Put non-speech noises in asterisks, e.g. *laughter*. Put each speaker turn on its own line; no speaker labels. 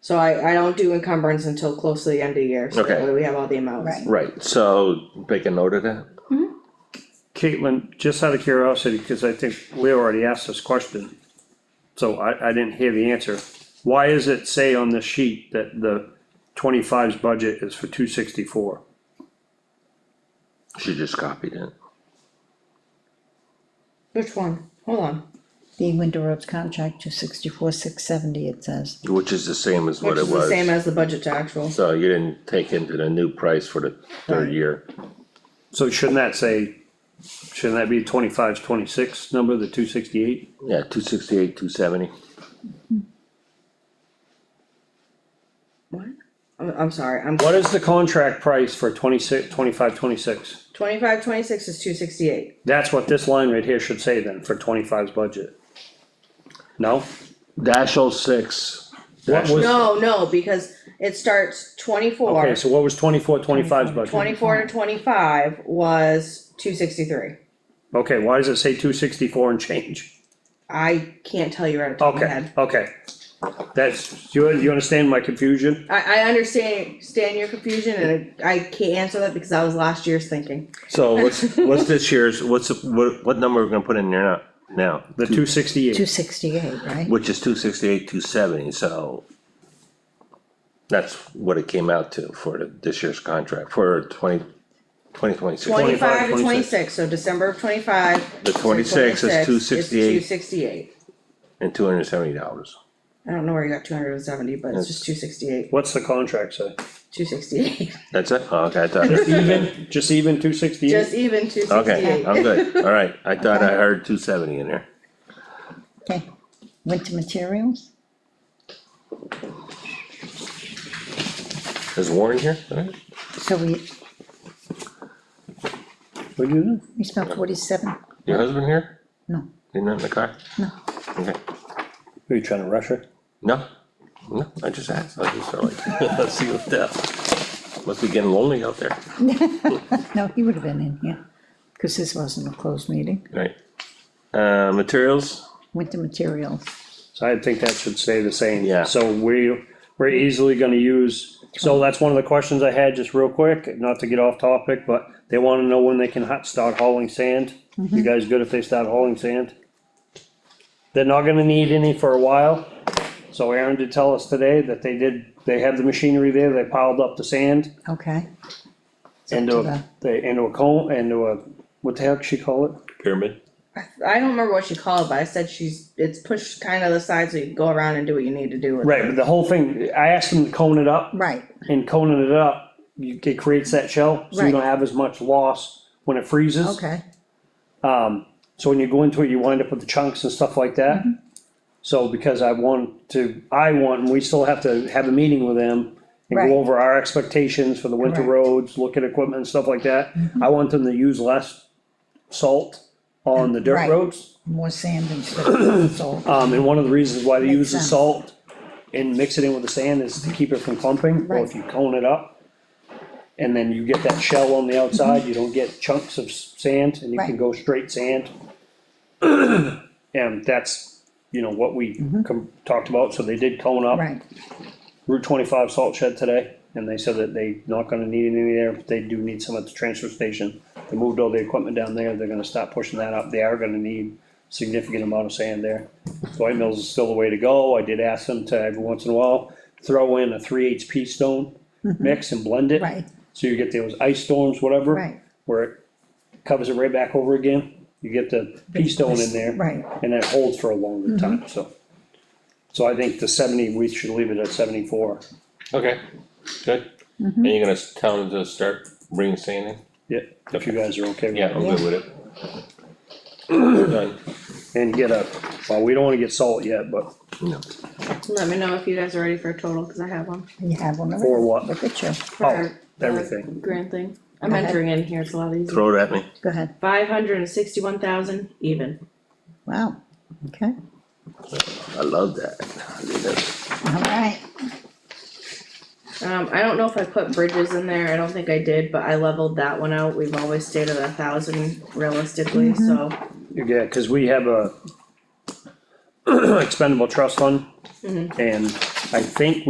So I, I don't do encumbrance until close to the end of the year, so that
Okay.
way we have all the amounts.
Right.
Right, so make a note of that,
Caitlin, just out of curiosity, because I think we already asked this question. So I, I didn't hear the answer. Why is it say on the sheet that the 25's budget is for two sixty-four?
she just copied it.
Which one? Hold on.
The winter roads contract, two sixty-four, six seventy, it says.
Which is the same as what
Which
it
is the same
was,
as the budget to actual.
so you didn't take into the new price for the third
Right.
year,
So shouldn't that say, shouldn't that be 25's 26 number, the two sixty-eight?
yeah, two sixty-eight, two seventy.
What? I'm, I'm sorry, I'm,
What is the contract price for 26, 25, 26?
twenty-five, twenty-six is two sixty-eight.
That's what this line right here should say then, for 25's budget. No?
Dash oh six,
What was,
No, no, because it starts
okay,
24.
so what was 24, 25's budget?
24 to twenty-five was two sixty-three.
Okay, why does it say two sixty-four and change?
I can't tell you right off the top of my
Okay,
head.
okay. That's, you, you understand my confusion?
I, I understand, understand your confusion and I can't answer that because that was last year's thinking.
so
*laughs*
what's, what's this year's, what's, the- what, what number we're gonna put in there now, now?
The two
Two
sixty-eight,
sixty-eight, right?
Which is two sixty-eight, two seventy, so. That's what it came out to for the- this year's contract, for twenty, twenty twenty-six.
25,
Twenty-five to
26.
twenty-six, so December of twenty-five.
The twenty-six is two
Two
sixty-eight
sixty-eight.
and two hundred and seventy dollars.
I don't know where you got two hundred and seventy, but it's just two sixty-eight,
what's the contract say?
two
*laughs*
sixty-eight,
That's it? Oh, Okay, I thought,
Even, just even two
just
sixty-eight?
even two
okay,
sixty-eight.
I'm good, alright, I thought I heard two seventy in there.
Okay, winter materials,
Is Warren here?
so we,
What'd you do?
we spent forty-seven,
Your husband here?
no,
He's not in the car?
no,
Okay,
Are you trying to rush her?
no, no, I just asked, I just sort of *laughs* like, let's see what the, must be getting lonely out there,
no, he would have been in here, cause this wasn't a closed meeting,
right? Uh, materials?
winter materials.
So I think that should stay the same.
Yeah.
So we, we're easily gonna use, so that's one of the questions I had, just real quick, not to get off topic, but they wanna know when they can ha- start hauling sand.
Mm-hmm.
You guys good if they start hauling sand? They're not gonna need any for a while, so Aaron did tell us today that they did, they have the machinery there, they piled up the sand
Okay. It's up
into,
to
a- they, into a cone, into a, what the heck she call it?
Pyramid.
*laughs* I don't remember what she called, but I said she's, it's pushed kind of the side so you can go around and do what you need to do with it.
Right, but the whole thing, I asked them to cone it up,
the- Right,
and coning it up, you, it creates that shell, so you
Right.
don't have as much loss when it freezes.
okay,
So when you go into it, you wind up with the chunks and stuff like that.
Mm-hmm.
So because I want to, I want, and we still have to have a meeting with them and
Right.
go over our expectations for the winter
Correct.
roads, look at equipment and stuff like that.
Mm-hmm.
I want them to use less salt on the dirt
Right.
roads.
more sand and stuff, so,
Um, and one of the reasons why they
Makes
use the
sense.
salt and mix it in with the sand is to keep it from clumping, or if
Right.
you cone it up. And then you get that shell on the outside, you don't get chunks of s- sand, and you can
Mm-hmm. Right.
go
*clears throat*
straight sand. And that's, you know, what we
Mm-hmm.
com- talked about, so they did cone up
right,
Route twenty-five salt shed today, and they said that they not gonna need any there, but they do need some at the transfer station. They moved all the equipment down there, they're gonna stop pushing that up, they are gonna need significant amount of sand there. So White Mills is still the way to go, I did ask them to every once in a while, throw in a three HP stone mix and blend it.
Mm-hmm. right,
So you get those ice storms, whatever.
Right.
Where it covers it right back over again, you get the pea stone in there.
Right. Mm-hmm.
And it holds for a longer time, so. So I think the seventy, we should leave it at seventy-four.
Okay, good. And you're gonna s- tell them to start bringing sand in?
Yeah, if you guys are okay with
Yeah,
that.
I'm good with it. *clears throat* Done.
And get a, well, we don't wanna get salt yet, but
No.
Let me know if you guys are ready for a total, cause I have one.
you have one of
for
them,
what?
look at you,
Oh,
for the
everything.
Grand thing. I'm
Okay.
entering in here, it's a lot easier.
Throw it at me.
go ahead,
Five hundred and sixty-one thousand even.
wow, okay,
I love that. I mean, that's-
all right.
Um, I don't know if I put bridges in there, I don't think I did, but I leveled that one out, we've always stayed at a thousand realistically, so.
Yeah, cause we have *clears throat* a expendable trust fund. And I think